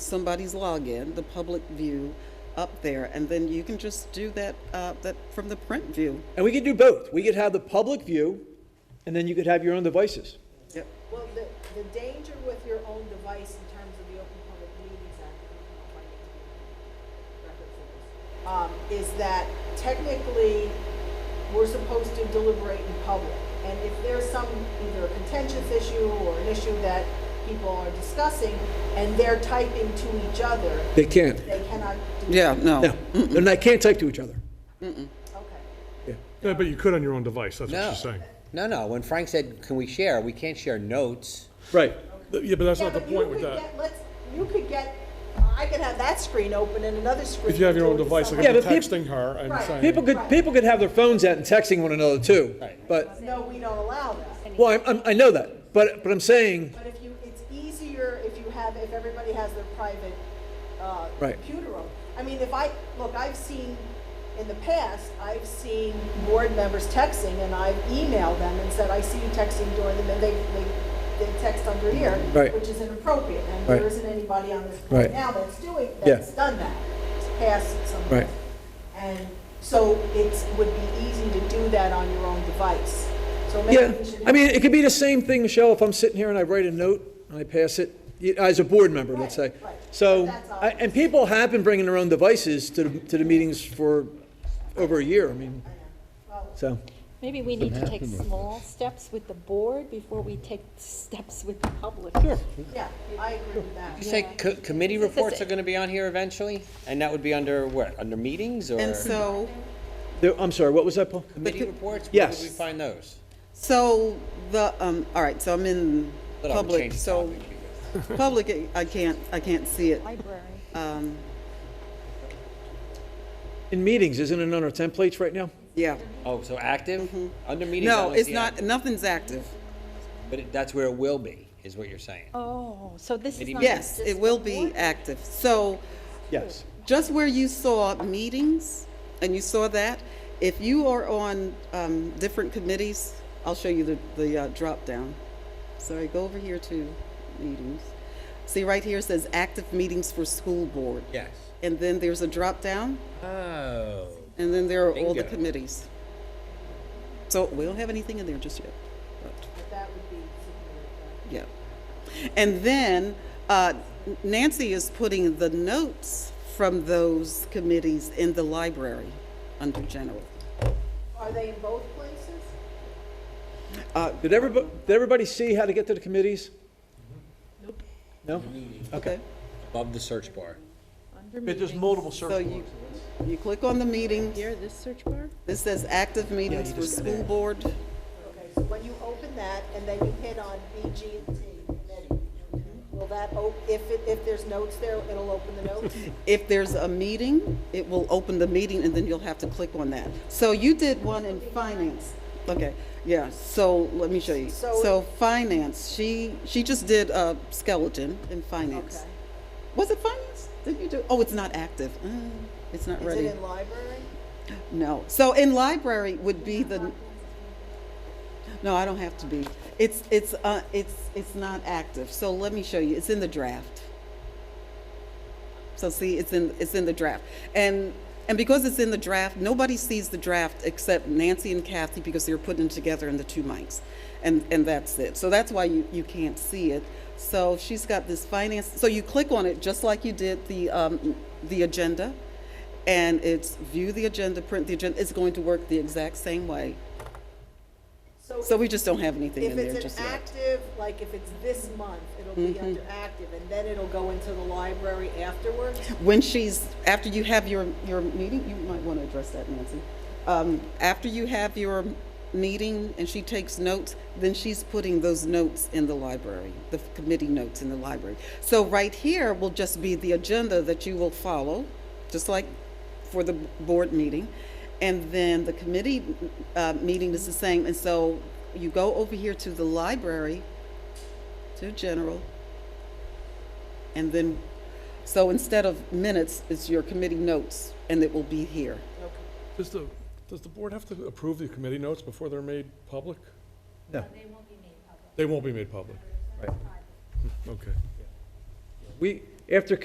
somebody's login, the public view up there, and then you can just do that, uh, that from the print view. And we could do both. We could have the public view, and then you could have your own devices. Yep. Well, the, the danger with your own device in terms of the Open Public Meetings Act, I don't know if I need to record for this, um, is that technically, we're supposed to deliberate in public. And if there's some, either a contentious issue or an issue that people are discussing, and they're typing to each other, They can't. they cannot do. Yeah, no. No, and they can't type to each other. Okay. Yeah. Yeah, but you could on your own device, that's what No. she's saying. No, no, when Frank said, can we share, we can't share notes. Right. Yeah, but that's Yeah, not the but you point with could that. get- Let's, you could get, I could have that screen open and another screen. If you have your own to device, like someone- Yeah, if but you're peop- texting her and Right. saying. People could, people could have their phones out and texting one another too. Right. But, No, we don't allow that. well, I'm- I'm, I know that, but, but I'm saying, But if you, it's easier if you have, if everybody has their private, uh, Right. computer room. I mean, if I, look, I've seen, in the past, I've seen board members texting and I've emailed them and said, I see you texting during the, and they, they, they text under here, Right. which is inappropriate. And Right. there isn't anybody on this Right. board now that's doing, Yeah. that's done that, It's passed some. Right. And so it's, would be easy to do that on your own device. So yeah, maybe we should. I mean, it could be the same thing, Michelle, if I'm sitting here and I write a note and I pass it, you- as a board member, let's say. Right, right. So, That's all. I- and people have been bringing their own devices to, the- to the meetings for over a year, I Oh, mean, so. Maybe we need to take small steps with the board before we take steps with the public. Yeah, I agree with that. You say co- committee This is- reports are gonna be on here eventually? And that would be under what, under meetings or? And so, There- I'm sorry, what was that, Paul? Committee reports? Yes. Where would we find those? so the, um, all right, so I'm in But I would public, change the so, topic because- public, I can't, I can't see it. Library. Um, In meetings, isn't it under templates right now? yeah. Oh, so active? Under meetings? I Mm-hmm. No, only it's see not, active. nothing's active. But it- that's where it will be, is what you're saying. Oh, so this is Maybe not. Yes, just it will the be board? active. So Yes. just where you saw meetings and you saw that, if you are on um, different committees, I'll show you the, the uh, drop down. Sorry, go over here to meetings. See, right here it says active meetings for school board. Yes. And then there's a drop down, Oh. and then there are all the Bingo. committees. So we don't have anything in there just yet. but- But that would be significant. Yep. And then uh, Nancy is putting the notes from those committees in the library under general. Are they in both places? Uh, Did everybody, did everybody see how to get to the committees? Nope. No? Okay. Above the search bar. But there's multiple search So you, you click on the meeting. Here, this search bar? It says active meetings for school board. Okay, so when you open that and then you hit on BG and T committee, will that, op- if, it- if there's notes there, it'll open the notes? If there's a meeting, it will open the meeting and then you'll have to click on that. So you did one in finance. Okay, yeah, so let me show you. So- So finance, she, she just did a skeleton in finance. Okay. Was it finance? Did you do? Oh, it's not active. Mm, it's not Is ready. it in library? no. So in library would be the. No, I don't have to be. It's it's uh it's it's not active. So let me show you. It's in the draft. So see, it's in it's in the draft, and and because it's in the draft, nobody sees the draft except Nancy and Kathy because they're putting it together in the two mics, and and that's it. So that's why you you can't see it. So she's got this finance. So you click on it just like you did the um, the agenda, and it's view the agenda, print the agenda. It's going to work the exact same way. So we just don't have anything If in there it's just an yet. Mm-hmm. active, like if it's this month, it'll be under active, and then it'll go into the library afterwards? When she's, after you have your, your meeting, you might want to address that, Nancy. Um, after you have your meeting and she takes notes, then she's putting those notes in the library, the committee notes in the library. So right here will just be the agenda that you will follow, just like for the board meeting. And then the committee, uh, meeting is the same. And so you go over here to the library, to general, And then, so instead of minutes, it's your committee notes, and it will be here. Does the, does the board have to approve the committee notes before they're made public? No. Hmm, They won't be made public? Right. Okay. We, after